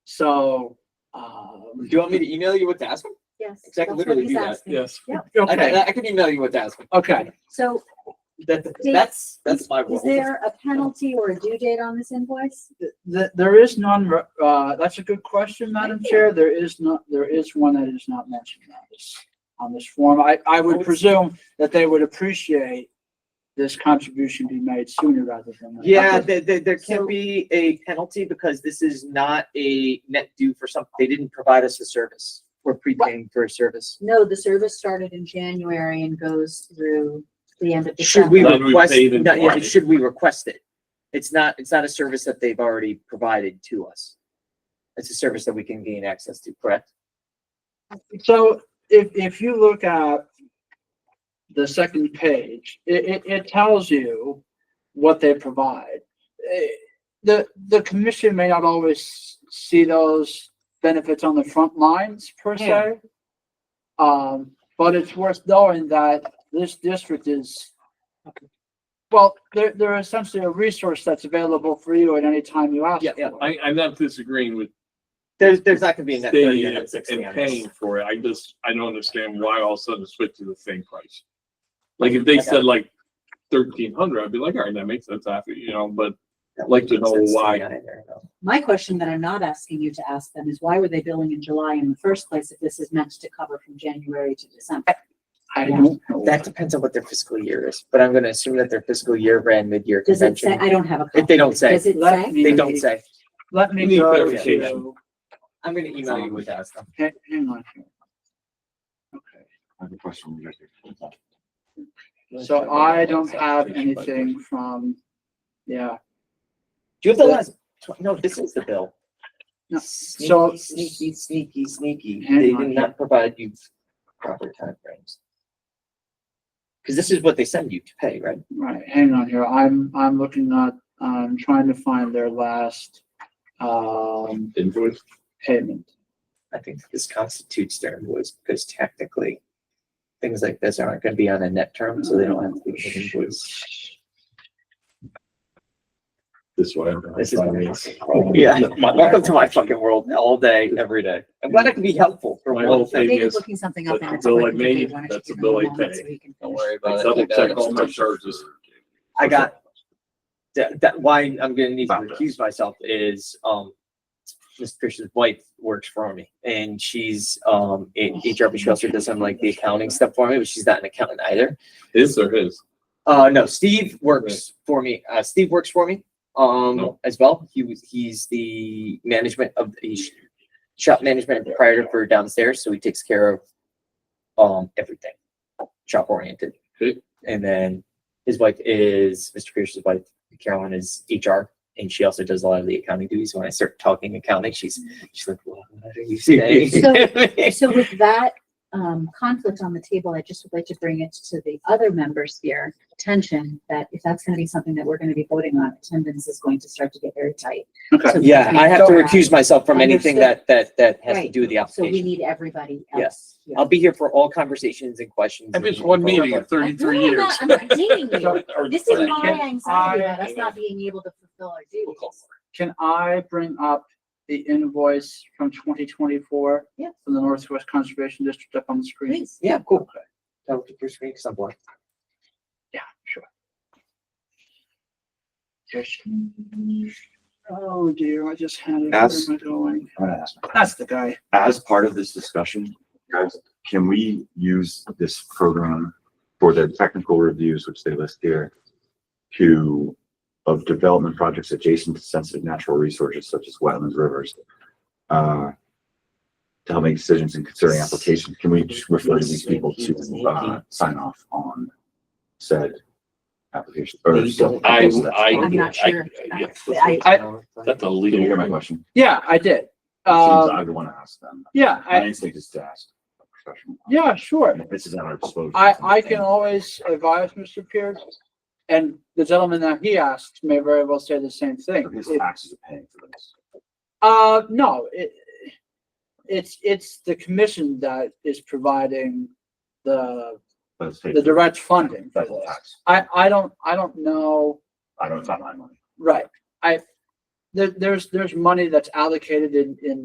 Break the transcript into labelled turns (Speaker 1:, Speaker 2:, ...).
Speaker 1: So, uh, do you want me to email you what to ask them?
Speaker 2: Yes.
Speaker 1: Because I can
Speaker 2: that's what
Speaker 1: literally
Speaker 2: he's
Speaker 1: do that.
Speaker 2: asking.
Speaker 3: Yes.
Speaker 2: Yep.
Speaker 1: I can,
Speaker 3: Okay.
Speaker 1: I can email you what to ask them. Okay,
Speaker 2: So
Speaker 1: that,
Speaker 2: Dave,
Speaker 1: that's, that's my
Speaker 2: is
Speaker 1: world.
Speaker 2: there a penalty or a due date on this invoice?
Speaker 4: Th there is none, uh, that's a good question, Madam Chair. There is not, there is one that is not mentioned on this, on this form. I, I
Speaker 1: Oh.
Speaker 4: would presume that they would appreciate this contribution be made sooner rather than. later.
Speaker 5: Yeah, there, there, there
Speaker 2: So-
Speaker 5: can be a penalty because this is not a net due for something. They didn't provide us a service. We're prepaying for a service.
Speaker 2: No, the service started in January and goes through the end of
Speaker 5: Should we
Speaker 2: December.
Speaker 3: Then we
Speaker 5: request,
Speaker 3: pay them
Speaker 5: no, yeah,
Speaker 3: for it.
Speaker 5: should we request it? It's not, it's not a service that they've already provided to us. It's a service that we can gain access to, correct?
Speaker 4: So if, if you look at the second page, it, it, it tells you what they provide. Eh, The, the commission may not always see those benefits on the front lines per se. Um, but it's worth knowing that this district is, well, they're, they're essentially a resource that's available for you at any time you ask
Speaker 5: Yeah, yeah,
Speaker 4: for it.
Speaker 3: I, I'm not disagreeing with
Speaker 5: There's, there's not gonna be a net thirty,
Speaker 3: staying
Speaker 5: a net
Speaker 3: and
Speaker 5: sixty
Speaker 3: and
Speaker 5: on this.
Speaker 3: paying for it. I just, I don't understand why all of a sudden switch to the same price. Like if they said like thirteen hundred, I'd be like, all right, that makes sense after, you know, but
Speaker 5: That
Speaker 3: like to
Speaker 5: makes
Speaker 3: know
Speaker 5: sense me
Speaker 3: why.
Speaker 5: either, though.
Speaker 2: My question that I'm not asking you to ask them is why were they billing in July in the first place if this is meant to cover from January to December?
Speaker 4: I don't know.
Speaker 5: That depends on what their fiscal year is, but I'm gonna assume that their fiscal year ran mid-year
Speaker 2: Does it say,
Speaker 5: convention.
Speaker 2: I don't have a.
Speaker 5: If they don't
Speaker 2: copy.
Speaker 5: say,
Speaker 2: Does it
Speaker 4: Let
Speaker 2: say?
Speaker 4: me-
Speaker 5: they don't say.
Speaker 4: Let
Speaker 3: We
Speaker 4: me
Speaker 3: need
Speaker 4: go
Speaker 3: clarification.
Speaker 4: to,
Speaker 5: I'm gonna email you with that stuff.
Speaker 4: hang hang on here. Okay.
Speaker 6: I have a question. regarding that.
Speaker 4: So I don't have anything from, yeah,
Speaker 5: Do you have the last, tw- no, this is the bill.
Speaker 4: No, so-
Speaker 5: Sneaky, sneaky, sneaky, sneaky.
Speaker 4: Hang
Speaker 5: They
Speaker 4: on
Speaker 5: did not provide you proper timeframes. Cause this is what they send you to pay, right?
Speaker 4: right, hang on here, I'm, I'm looking at, I'm trying to find their last, um,
Speaker 3: Invoice.
Speaker 4: payment.
Speaker 5: I think this constitutes their invoice because technically things like this aren't gonna be on a net term, so they don't have to be an invoice.
Speaker 6: This way.
Speaker 5: This is-
Speaker 6: I mean, it's-
Speaker 5: Yeah, welcome to my fucking world all day, every day. I'm glad I can be helpful for
Speaker 3: My
Speaker 5: one
Speaker 3: whole
Speaker 5: thing.
Speaker 3: thing
Speaker 2: David's
Speaker 3: is,
Speaker 2: looking something up.
Speaker 3: that's
Speaker 2: and
Speaker 3: a
Speaker 2: it's
Speaker 3: bill I
Speaker 2: like, okay,
Speaker 3: made,
Speaker 2: why don't you
Speaker 3: that's
Speaker 2: give
Speaker 3: a
Speaker 2: him
Speaker 3: bill I
Speaker 2: moment
Speaker 3: paid.
Speaker 2: so he can
Speaker 1: Don't
Speaker 2: finish?
Speaker 1: worry about it.
Speaker 3: double
Speaker 1: I got
Speaker 3: check
Speaker 1: it.
Speaker 3: all my charges.
Speaker 5: I got that, that why I'm gonna need to
Speaker 6: About that.
Speaker 5: recuse myself is, um, Miss Christian's wife works for me and she's, um, in HR Bushwasser does some like the accounting stuff for me, but she's not an accountant either.
Speaker 3: His or his?
Speaker 5: Uh, no, Steve works for me. Uh, Steve works for me, um,
Speaker 3: No.
Speaker 5: as well. He was, he's the management of, he's shop management and proprietor for downstairs, so he takes care of, um, everything shop oriented.
Speaker 3: Okay.
Speaker 5: And then his wife is, Mr. Pierce's wife, Carolyn is HR, and she also does a lot of the accounting duties. When I start talking accounting, she's, she's like, what are you saying?
Speaker 2: So with that um, conflict on the table, I just would like to bring it to the other members here, attention, that if that's going to be something that we're going to be voting on, attendance is going to start to get very tight.
Speaker 4: Okay.
Speaker 2: So we
Speaker 5: Yeah, I have to
Speaker 2: can't-
Speaker 5: recuse myself from anything that, that, that has to
Speaker 2: Right.
Speaker 5: do with the
Speaker 2: So we
Speaker 5: application.
Speaker 2: need everybody
Speaker 5: Yeah.
Speaker 2: else. here.
Speaker 5: I'll be here for all conversations and questions.
Speaker 3: I've been to one meeting in
Speaker 2: I'm not-
Speaker 3: thirty-three years.
Speaker 2: I'm not dating you.
Speaker 3: Or-
Speaker 2: This is
Speaker 3: or-
Speaker 2: my anxiety about
Speaker 4: I-
Speaker 2: us not being able to fulfill our duties.
Speaker 4: Can I bring up the invoice from twenty twenty-four?
Speaker 2: Yeah.
Speaker 4: From the Northwest Conservation District up on the screen?
Speaker 2: Please.
Speaker 5: Yeah, cool. That was your screen, cause I'm blind.
Speaker 4: Yeah, sure. Here she- Oh dear, I just had it, where
Speaker 6: That's-
Speaker 4: am I going?
Speaker 6: I'm gonna ask.
Speaker 4: That's the guy.
Speaker 6: As part of this discussion, guys, can we use this program for the technical reviews, which they list here, to, of development projects adjacent to sensitive natural resources such as wetlands, rivers, uh, to help make decisions and considering applications? Can we just refer these people to, uh, sign off on said application? or so-
Speaker 3: I,
Speaker 2: I'm
Speaker 3: I,
Speaker 2: not sure.
Speaker 4: uh,
Speaker 3: I,
Speaker 2: I-
Speaker 4: I-
Speaker 3: that's a
Speaker 6: Did you hear my
Speaker 3: legal.
Speaker 6: question?
Speaker 4: Yeah, I did.
Speaker 6: Seems
Speaker 4: Um
Speaker 6: I would want to ask them.
Speaker 4: yeah,
Speaker 6: My
Speaker 4: I,
Speaker 6: instinct is to ask a professional.
Speaker 4: yeah, sure.
Speaker 6: And if This is at our disposal.
Speaker 4: I, I can always uh, advise Mr. Pierce, and the gentleman that he asked may very well say the same thing.
Speaker 6: So His
Speaker 4: It-
Speaker 6: taxes are paying for this.
Speaker 4: Uh, no, it, it's, it's the commission that is providing the,
Speaker 6: but it's paid
Speaker 4: the
Speaker 6: for.
Speaker 4: direct funding for
Speaker 6: That's a
Speaker 4: this.
Speaker 6: tax.
Speaker 4: I, I don't, I don't know,
Speaker 6: I don't, it's not my money.
Speaker 4: right, I, there, there's, there's money that's allocated in, in